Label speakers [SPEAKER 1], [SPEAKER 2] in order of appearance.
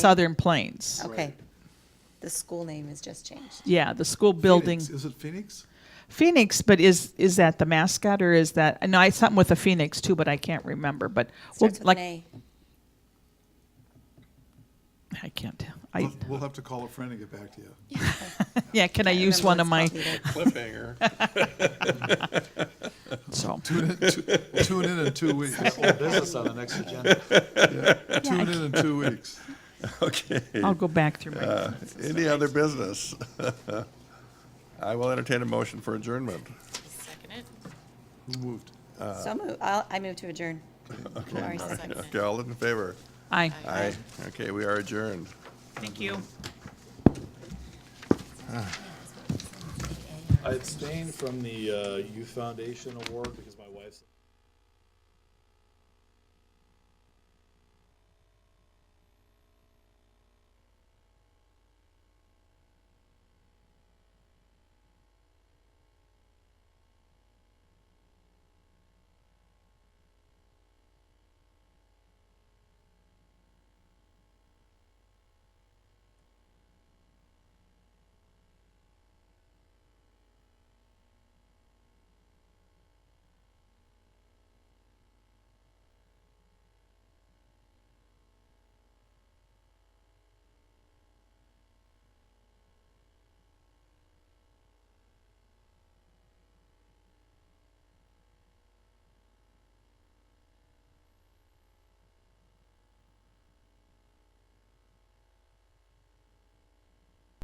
[SPEAKER 1] Southern Plains.
[SPEAKER 2] Okay. The school name is just changed.
[SPEAKER 1] Yeah, the school building
[SPEAKER 3] Phoenix, Is it Phoenix?
[SPEAKER 1] Phoenix, but is is that the mascot or is that? No, it's something with a phoenix too, but I can't remember. But we'll-
[SPEAKER 2] Starts with
[SPEAKER 1] like
[SPEAKER 2] an A.
[SPEAKER 1] I can't. tell. I
[SPEAKER 3] We'll we'll have to call a friend and get back to you.
[SPEAKER 1] yeah. Can I
[SPEAKER 2] Can't
[SPEAKER 1] use
[SPEAKER 2] remember
[SPEAKER 1] one
[SPEAKER 2] what
[SPEAKER 1] of my?
[SPEAKER 2] it's called either.
[SPEAKER 4] cliffhanger.
[SPEAKER 1] So
[SPEAKER 3] Tune in, tu- tune in in two weeks.
[SPEAKER 5] Old business on the next agenda.
[SPEAKER 3] Tune in in two weeks.
[SPEAKER 4] Okay.
[SPEAKER 1] I'll go back through my.
[SPEAKER 4] Uh, Any other business? I will entertain a motion for adjournment.
[SPEAKER 6] Second it.
[SPEAKER 3] Who moved?
[SPEAKER 2] So move, I'll, I move to adjourn. Lori
[SPEAKER 4] All right,
[SPEAKER 2] seconded.
[SPEAKER 4] Okay, all in favor?
[SPEAKER 1] Aye.
[SPEAKER 4] Aye. Okay, we are adjourned.
[SPEAKER 1] Thank you.
[SPEAKER 5] I abstained from the uh, Youth Foundation Award because